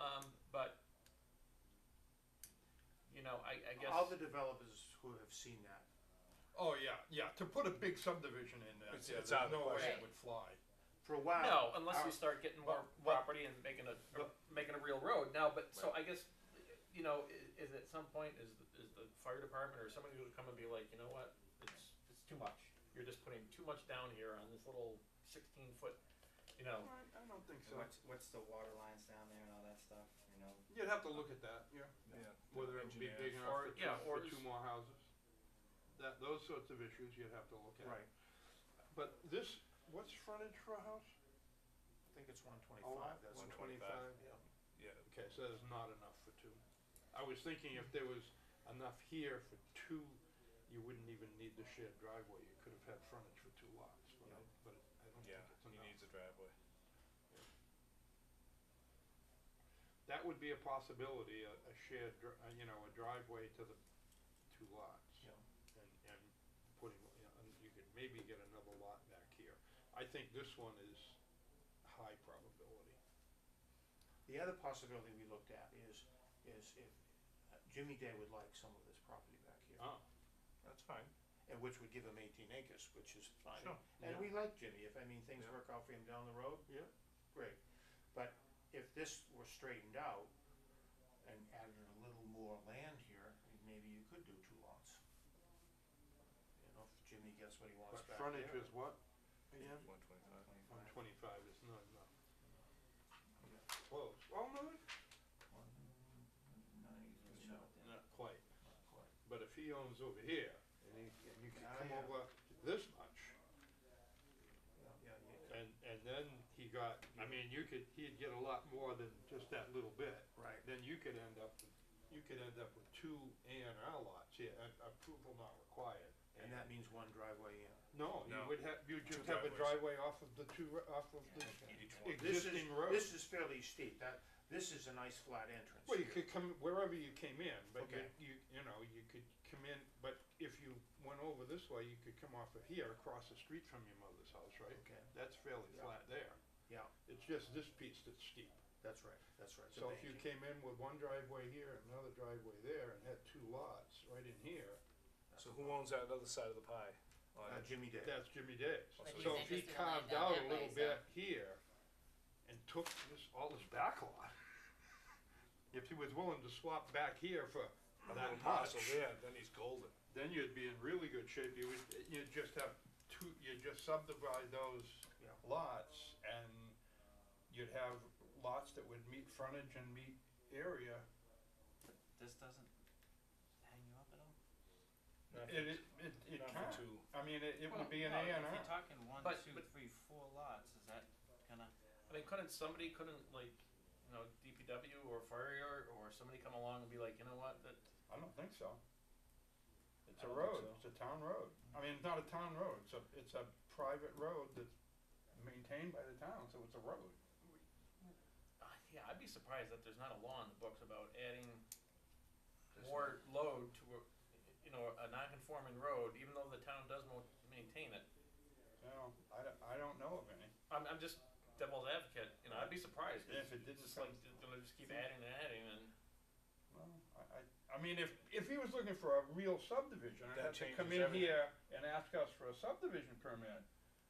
Um, I, I guess. All the developers who have seen that, Oh, yeah, yeah, to put a big subdivision in there, It's- yeah, it's there's out of the no way question. it would fly. for a while. No, unless our- we start getting more but- but- property and making a, but- making a real road now, but, so I guess, you know, i- is at some point, is, the- is the fire department or somebody gonna come and be like, you know what? It's, it's too much, you're just putting too much down here on this little sixteen foot, you know, I I don't think so. What's, what's the water lines down there and all that stuff, you know? You'd have to look at that, yeah. Whether it would be big Engineers. enough Or- for two, yeah, for or- two more houses. That, those sorts of issues you'd have to look at. Right. But this, what's frontage for a house? I think it's one lot? twenty-five, that's what. 125. yeah. Yeah, Okay, so there's not enough for two. I was thinking if there was enough here for two, you wouldn't even need the shared driveway, you could have had frontage for two lots, but I, but I don't think yeah, it's he enough. needs a driveway. That would be a possibility, a, a shared, dri- uh, you know, a driveway to the two lots. Yeah. And, and putting, you know, and you could maybe get another lot back here. I think this one is high probability. The other possibility we looked at is, is if uh, Jimmy Day would like some of this property back here, Oh, That's fine. and which would give him eighteen acres, which is fine. Sure. And Yeah. we like Jimmy, if, I mean, things Yeah. work out for him down the road, yeah, great. But if this were straightened out and added a little more land here, maybe you could do two lots. You know, if Jimmy gets what he wants back but there. frontage is what? Yeah. One Uh, twenty-five. One twenty-five is not enough. Close. Oh, no, it's mm, No, not quite. not quite. But if he owns over here, and he, and you can Ah, come yeah. over this much, Yeah, yeah, yeah. and, and then he got, I mean, you could, he'd get a lot more than just that little bit. Right. then you could end up, with- you could end up with two A and R lots, yeah, a- approval not required. And that means one driveway in. No, you No. would have, you Two just have a driveways. driveway off of the two, r- off of the Each one. This is, existing road. this is fairly steep, that, this is a nice flat entrance. Well, you here. could come wherever you came in, but you, Okay. you, you know, you could come in, but if you went over this way, you could come off of here, across the street from your mother's house, right? Okay. That's fairly Yeah. flat there. Yeah. It's just this piece that's steep. That's right, that's right. So if you banking. came in with one driveway here, and another driveway there, and had two lots right in here, So who owns that other side of the pie? Oh, Uh, Jimmy Day. That's Jimmy Days. But he's So if he interested in carved laying down out a that little way, bit here and took this, all this back lot, if he was willing to swap back here for A that little much, parcel there, then he's golden. then you'd be in really good shape. You would, you'd just have two, you'd just subdivide those Yeah. lots and you'd have lots that would meet frontage and meet area. This doesn't hang you up at all? And it, it, it Not can't, for two. I mean, it, it Well, would be an no, A and If R. you're talking one, But- two, but- three, four lots, is that gonna? I mean, couldn't somebody, couldn't like, you know, DPW or fire or somebody come along and be like, you know what, that, I don't think so. It's a I don't think road, so. it's a town road. I mean, it's not a town road, it's a, it's a private road that's maintained by the town, so it's a road. Uh, yeah, I'd be surprised that there's not a law in the books about adding more load to a, you know, a non-conforming road, even though the town does mo- maintain it. You know, I don't, I don't know of any. I'm, I'm just devil's advocate, you know, I'd be surprised. Yeah, if it didn't It's just like, they'll just keep adding and adding and. Well, I, I, I mean, if, if he was looking for a real subdivision, and had That to come changes in everything. here and ask us for a subdivision permit,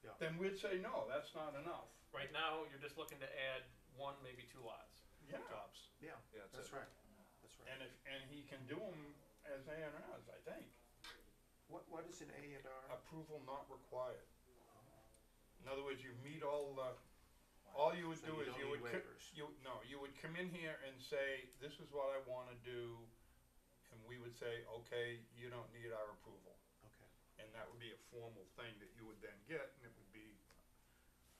Yeah. then we'd say, no, that's not enough. Right now, you're just looking to add one, maybe two lots. Yeah, Tops. Yeah, Yeah, that's that's it. right, that's right. and if, and he can do them as A and Rs, I think. What, what is an A and R? approval not required. In other words, you meet all the, all you would So you do is don't you need would, co- waivers. you, no, you would come in here and say, this is what I wanna do, and we would say, okay, you don't need our approval. Okay. And that would be a formal thing that you would then get, and it would be.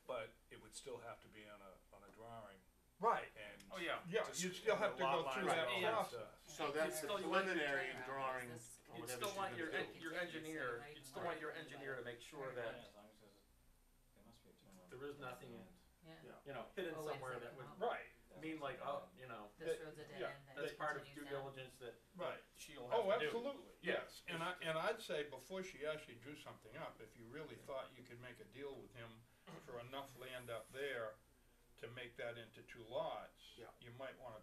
But it would still have to be on a, on a drawing Right. and. Oh, yeah. Yeah, Just you'd still have to the go lot through lines uh, that and all process. stuff. So that's the still you want your preliminary turnaround, drawing. is this- or You'd whatever still she's want gonna your, do. en- your engineer, you'd still want your engineer to make sure that As long as there's, a- there must be a turnaround. there is nothing, Yeah, Yeah. you know, hidden Oh, wait a somewhere that second. would Right, mean like, oh, you know, this That- road's a dead yeah, end. that that's part of due continues down. diligence that right. she'll have to do. Oh, absolutely, Yeah. yes, and I, and I'd say before she actually drew something up, if you really thought you could make a deal with him for enough land up there to make that into two lots, Yeah. you might wanna